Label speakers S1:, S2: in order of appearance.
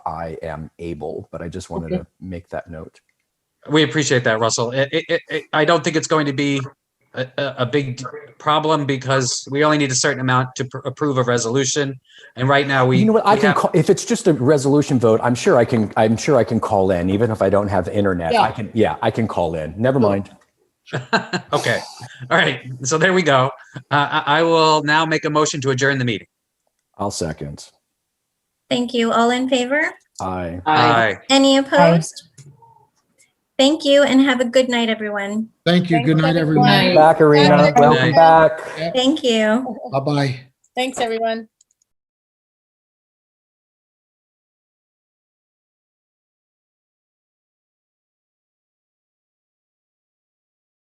S1: I am able, but I just wanted to make that note.
S2: We appreciate that, Russell. It, it, it- it, I don't think it's going to be a, a, a big problem because we only need a certain amount to pr- approve a resolution. And right now, we.
S1: you know what? I
S2: we
S1: can
S2: have-
S1: call, if it's just a resolution vote. I'm sure I can. I'm sure I can call in, even if I don't have internet. I
S3: Yeah.
S1: can. Yeah, I can call in. Never mind.
S2: Okay, all right, so there we go. Uh, I, I will now make a motion to adjourn the meeting.
S1: I'll second.
S4: Thank you. All in favor?
S1: I.
S2: Aye.
S4: Any opposed? Thank you and have a good night, everyone.
S5: Thank you. Good night, everyone.
S3: Night.
S1: Back, Arena.
S3: Good night.
S1: Welcome back.
S4: Thank you.
S5: Bye-bye.
S3: Thanks, everyone.